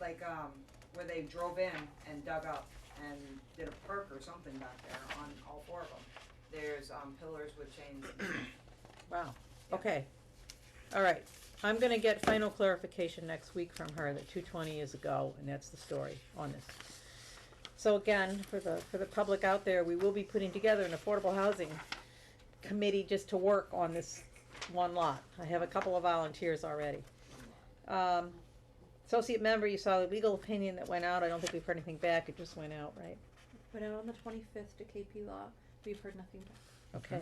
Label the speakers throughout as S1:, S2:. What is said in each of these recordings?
S1: like, um, where they drove in and dug up and did a perk or something back there on all four of them. There's, um, pillars with chains.
S2: Wow, okay. All right, I'm gonna get final clarification next week from her that two twenty is a go, and that's the story on this. So again, for the, for the public out there, we will be putting together an affordable housing committee just to work on this one lot. I have a couple of volunteers already. Um, associate member, you saw the legal opinion that went out, I don't think we've heard anything back, it just went out, right?
S3: Put out on the twenty-fifth to KP Law, we've heard nothing back.
S2: Okay.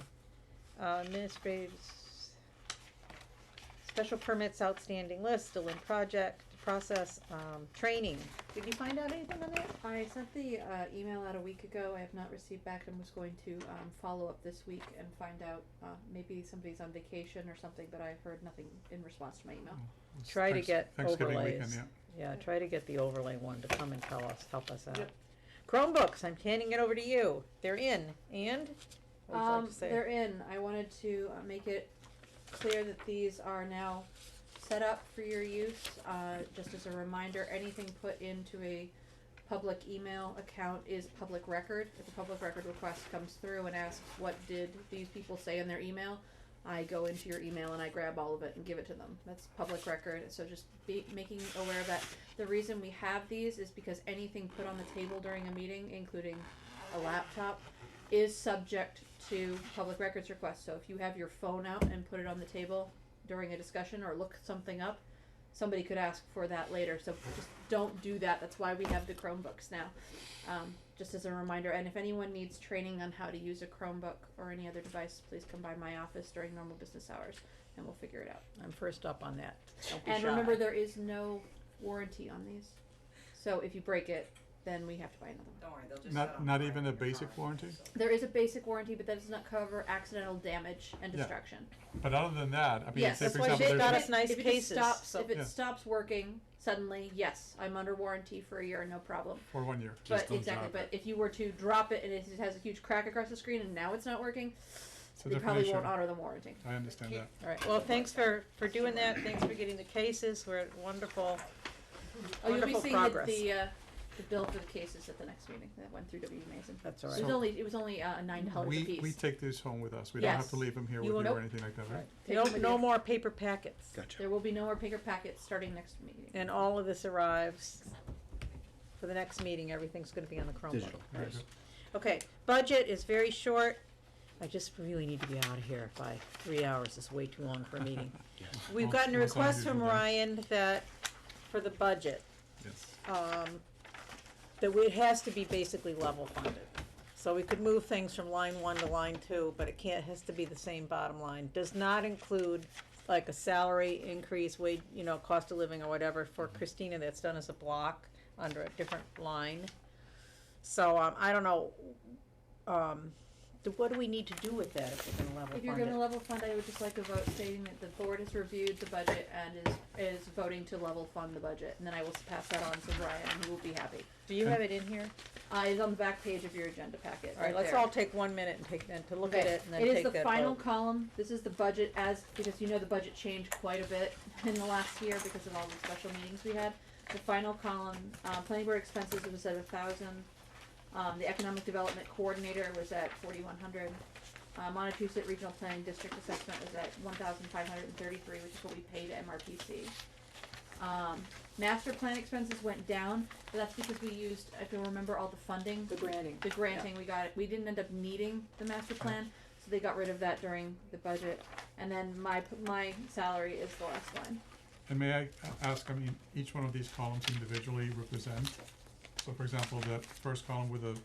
S2: Uh, administrative, s- special permits outstanding list, still in project, process, um, training. Did you find out anything on that?
S3: I sent the uh, email out a week ago. I have not received back. and was going to um, follow up this week and find out. Uh, maybe somebody's on vacation or something, but I heard nothing in response to my email.
S4: It's
S2: Try to
S4: Thanks-
S2: get
S4: Thanksgiving weekend,
S2: overlays.
S4: yeah.
S2: Yeah, try to get the overlay one to come and tell us, help us out. Chromebooks, I'm handing it over to you. They're in, and? What would you like
S3: Um,
S2: to say?
S3: they're in. I wanted to uh, make it clear that these are now set up for your use. Uh, just as a reminder, anything put into a public email account is public record. If a public record request comes through and asks, what did these people say in their email? I go into your email and I grab all of it and give it to them. That's public record. So just be making aware of that. The reason we have these is because anything put on the table during a meeting, including a laptop, is subject to public records requests. So if you have your phone out and put it on the table during a discussion or look something up, somebody could ask for that later. So just don't do that. That's why we have the Chromebooks now. Um, just as a reminder, and if anyone needs training on how to use a Chromebook or any other device, please come by my office during normal business hours and we'll figure it out.
S2: I'm first up on that. Don't be
S3: And
S2: shy.
S3: remember, there is no warranty on these. So if you break it, then we have to buy another one.
S1: Don't worry, they'll just
S4: Not-
S1: set 'em
S4: not
S1: right
S4: even
S1: in
S4: a
S1: your
S4: basic
S1: car,
S4: warranty?
S1: so.
S3: There is a basic warranty, but that does not cover accidental damage and
S4: Yeah.
S3: destruction.
S4: But other than that, I mean,
S3: Yes,
S4: say
S2: that's
S4: for
S2: why
S4: example,
S2: they've
S4: there's.
S2: got
S4: a-
S2: us nice
S3: if it
S2: cases,
S3: Just stops,
S2: so-
S3: if it
S4: Yeah.
S3: stops working suddenly, yes, I'm under warranty for a year, no problem.
S4: For one year.
S5: Just
S3: but
S5: don't
S3: exactly,
S5: drop
S3: but if you were to drop it and it has a huge crack across the screen and now it's not working,
S4: It's a
S3: they
S4: different
S3: probably
S4: issue.
S3: won't honor the warranty.
S4: I understand that.
S2: All right, well, thanks for, for doing that, thanks for getting the cases, we're at wonderful.
S3: Oh, you'll be
S2: Wonderful
S3: seeing the,
S2: progress.
S3: the, uh, the bill for the cases at the next meeting that went through W. E Mason.
S2: That's
S3: It
S2: all
S3: was
S2: right.
S4: So-
S3: only it was only uh, nine dollars a
S4: We,
S3: piece.
S4: we take these home with us. We don't have to
S3: Yes.
S4: leave them here
S3: You
S4: with
S3: won't-
S4: you or
S3: Nope.
S4: anything like that, right?
S3: Take
S2: No,
S3: them with
S2: no
S3: you.
S2: more paper packets.
S5: Gotcha.
S3: There will be no more bigger packets starting next meeting.
S2: And all of this arrives for the next meeting, everything's gonna be on the Chromebook.
S5: Digital.
S4: Very good.
S2: Okay, budget is very short, I just really need to be out of here by three hours, it's way too long for a meeting. We've
S4: Well,
S2: gotten a
S4: that's how you
S2: request
S4: do
S2: from
S4: that.
S2: Ryan that, for the budget,
S4: Yes.
S2: um, that we- it has to be basically level funded. So we could move things from line one to line two, but it can't, has to be the same bottom line. Does not include like a salary increase, wage, you know, cost of living or whatever. For Christina, that's done as a block under a different line. So, um, I don't know, um, th- what do we need to do with that if we're gonna level
S3: If you're
S2: fund
S3: gonna
S2: it?
S3: level fund, I would just like a vote stating that the board has reviewed the budget and is, is voting to level fund the budget, and then I will pass that on to Brian, and he will be happy.
S2: Do you have it in here?
S3: Uh, it's on the back page of your agenda packet,
S2: All right, let's
S3: there.
S2: all take one minute and take, and to look at
S3: Okay,
S2: it and then
S3: It is
S2: take that vote.
S3: the final column, this is the budget as, because you know the budget changed quite a bit in the last year because of all the special meetings we had. The final column, uh, planning board expenses was at a thousand, um, the economic development coordinator was at forty-one hundred. Uh, Montezut Regional Planning District Assessment was at one thousand five hundred and thirty-three, which is what we paid MRPC. Um, master plan expenses went down, but that's because we used, if you remember, all the funding
S2: The granting.
S3: the granting, we got it, we didn't end up needing the master plan, so they got rid of that during the budget. And then my, p- my salary is the last line.
S4: And may I a- ask, I mean, each one of these columns individually represent, so for example, the first column with the,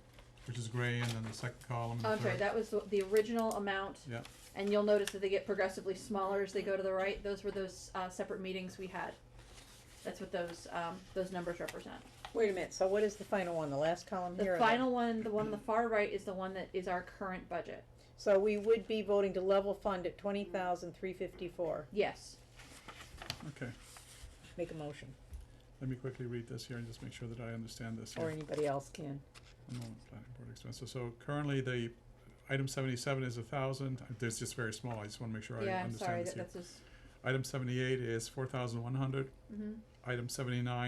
S4: which is gray, and then the second column and
S3: Oh,
S4: the
S3: I'm sorry,
S4: third.
S3: that was the, the original amount,
S4: Yeah,
S3: and you'll notice that they get progressively smaller as they go to the right, those were those, uh, separate meetings we had. That's what those, um, those numbers represent.
S2: Wait a minute, so what is the final one, the last column here?
S3: The
S2: or
S3: final one, the one on the far right is the one that is our current budget,
S2: So we would be voting to level fund at twenty thousand three fifty-four.
S3: yes.
S4: okay.
S2: Make a motion,
S4: Let me quickly read this here and just make sure that I understand this here.
S2: or anybody else can.
S4: One moment, planning board expenses. So currently, the item seventy-seven is a thousand. There's just very small. I just wanna make sure I
S3: Yeah, I'm sorry,
S4: understand this
S3: that,
S4: here.
S3: that's just,
S4: Item seventy-eight is four thousand one hundred.
S3: mhm.
S4: Item seventy-nine